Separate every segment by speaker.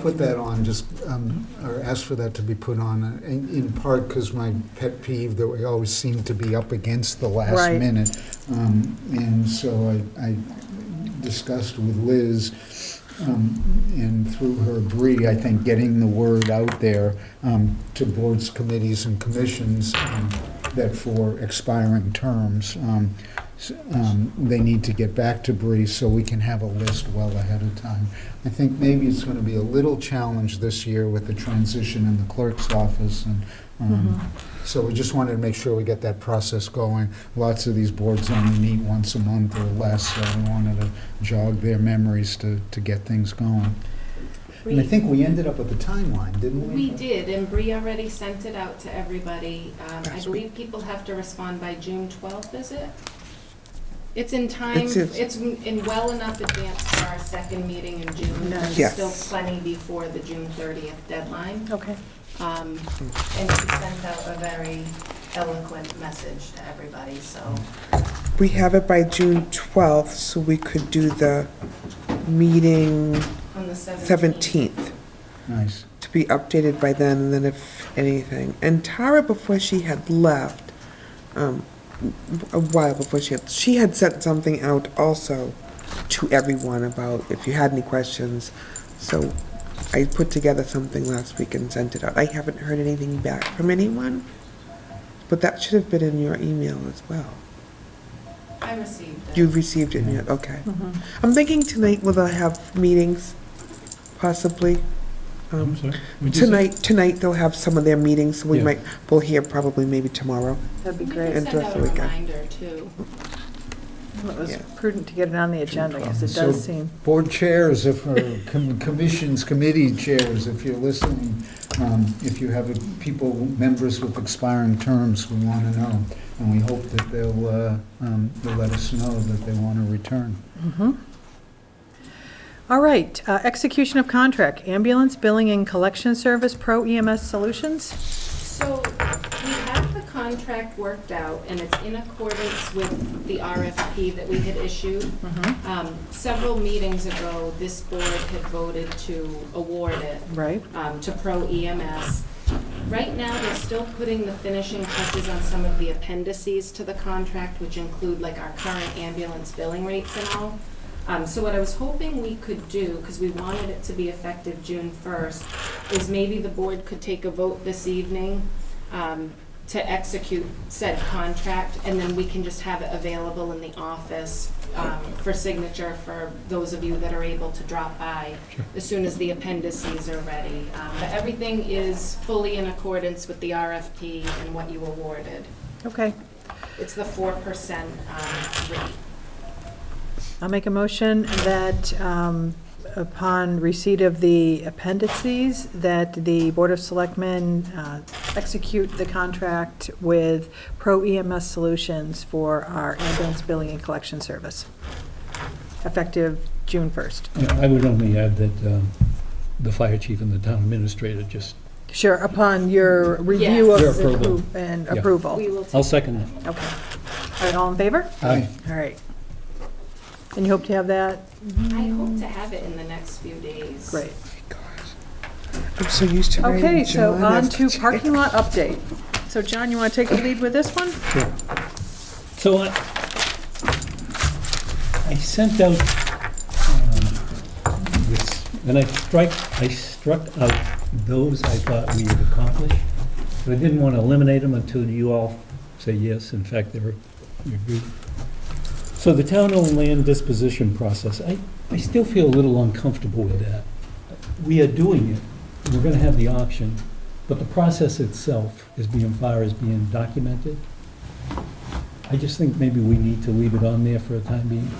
Speaker 1: put that on, just, um, or ask for that to be put on, uh, in in part because my pet peeve that we always seem to be up against the last
Speaker 2: Right.
Speaker 1: minute. Um, And so I I discussed with Liz, um, and through her, Bree, I think, getting the word out there um, to boards, committees, and commissions um, that for expiring terms, um, s- um, they need to get back to Bree so we can have a list well ahead of time. I think maybe it's going to be a little challenge this year with the transition in the clerk's office and um, so we just wanted to make sure we get that process going. Lots of these boards only meet once a month or less, so we wanted to jog their memories to, to get things going. And I
Speaker 3: We,
Speaker 1: think we ended up with a timeline, didn't we?
Speaker 3: we did, and Bree already sent it out to everybody. Um, I
Speaker 1: Sweet.
Speaker 3: believe people have to respond by June twelfth, is it? It's in time,
Speaker 2: It's- it's-
Speaker 3: it's in in well enough advance for our second meeting in June. There's
Speaker 2: Yes.
Speaker 3: still plenty before the June thirtieth deadline.
Speaker 2: Okay.
Speaker 3: Um, And she sent out a very eloquent message to everybody, so.
Speaker 4: We have it by June 12th, so we could do the meeting
Speaker 3: On the seventeenth.
Speaker 4: 17th
Speaker 1: Nice.
Speaker 4: to be updated by then, and then if anything. And Tara, before she had left, um, a while before she had, she had sent something out also to everyone about if you had any questions. So I put together something last week and sent it out. I haven't heard anything back from anyone, but that should have been in your email as well.
Speaker 3: I received it.
Speaker 4: You received it, yeah, okay.
Speaker 2: Mm-hmm.
Speaker 4: I'm thinking tonight whether I have meetings, possibly. Um, Tonight, tonight they'll have some of their meetings, so we
Speaker 5: Yeah.
Speaker 4: might, we'll hear probably maybe tomorrow.
Speaker 2: That'd be
Speaker 3: We
Speaker 2: great.
Speaker 3: can
Speaker 4: And
Speaker 3: send out a
Speaker 4: Jessica.
Speaker 3: reminder, too.
Speaker 2: Well, It was
Speaker 4: Yeah.
Speaker 2: prudent to get it on the agenda because it
Speaker 1: So-
Speaker 2: does seem,
Speaker 1: Board chairs, if, or com- commissions, committee chairs, if you're listening, um, if you have a- people, members with expiring terms, we want to know. And we hope that they'll, uh, um, they'll let us know that they want to return.
Speaker 2: all right, uh, execution of contract, ambulance billing and collection service, Pro EMS Solutions.
Speaker 3: So we have the contract worked out, and it's in accordance with the RFP that we had issued. Um, Several meetings ago, this board had voted to award it
Speaker 2: Right,
Speaker 3: um, to Pro EMS. Right now, they're still putting the finishing touches on some of the appendices to the contract, which include like our current ambulance billing rates and all. Um, So what I was hoping we could do, because we wanted it to be effective June 1st, is maybe the board could take a vote this evening um, to execute said contract, and then we can just have it available in the office um, for signature for those of you that are able to drop by as soon as the appendices are ready. Um, But everything is fully in accordance with the RFP and what you awarded.
Speaker 2: okay.
Speaker 3: It's the 4% um, rate.
Speaker 2: I'll make a motion that um, upon receipt of the appendices, that the Board of Selectmen uh, execute the contract with Pro EMS Solutions for our ambulance billing and collection service, effective June 1st.
Speaker 5: I would only add that um, the fire chief and the town administrator just,
Speaker 2: Sure, upon your review
Speaker 3: Yes.
Speaker 5: Your
Speaker 2: of
Speaker 5: approval.
Speaker 2: appro- and
Speaker 5: Yeah.
Speaker 2: approval.
Speaker 3: We
Speaker 2: Okay.
Speaker 3: will
Speaker 5: I'll
Speaker 3: take,
Speaker 5: second that.
Speaker 2: All right, all in favor?
Speaker 1: Aye.
Speaker 2: All right. And you hope to have that?
Speaker 3: I hope to have it in the next few days.
Speaker 2: Great.
Speaker 4: I'm so used to writing.
Speaker 2: Okay, so
Speaker 4: John,
Speaker 2: on
Speaker 4: I've
Speaker 2: to
Speaker 4: got-
Speaker 2: parking lot update. So John, you want to take the lead with this one?
Speaker 5: So I I sent out um, this, and I strike, I struck out those I thought we had accomplished, but I didn't want to eliminate them until you all say yes. In fact, they're, you're good. So the town-owned land disposition process, I, I still feel a little uncomfortable with that. We are doing it, we're going to have the option, but the process itself is being, far as being documented. I just think maybe we need to leave it on there for a time being.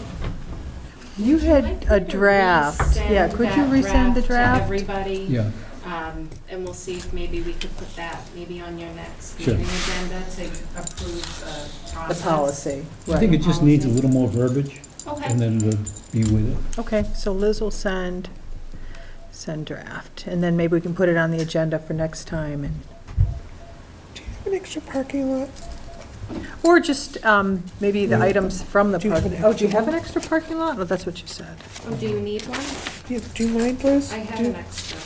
Speaker 2: You had a draft. Yeah, could you resend the draft?
Speaker 3: I think I resend that to everybody,
Speaker 5: Yeah,
Speaker 3: um, and we'll see if maybe we could put that maybe on your next
Speaker 5: Sure.
Speaker 3: meeting agenda to approve
Speaker 2: The
Speaker 3: the process.
Speaker 2: policy,
Speaker 5: I think
Speaker 2: right.
Speaker 5: it just needs a little more verbiage, and
Speaker 3: Okay,
Speaker 5: then we'll be with it.
Speaker 2: Okay, so Liz will send, send draft, and then maybe we can put it on the agenda for next time. and
Speaker 4: Do you have an extra parking lot?
Speaker 2: Or just um, maybe the items from the
Speaker 4: Do you have
Speaker 2: parking.
Speaker 4: an
Speaker 2: Oh, do you
Speaker 4: extra
Speaker 2: have an extra parking lot? Oh, that's what you said.
Speaker 3: Oh, do you need one?
Speaker 4: Yeah, Do you mind, Liz?
Speaker 3: I have
Speaker 4: Do-
Speaker 3: an extra.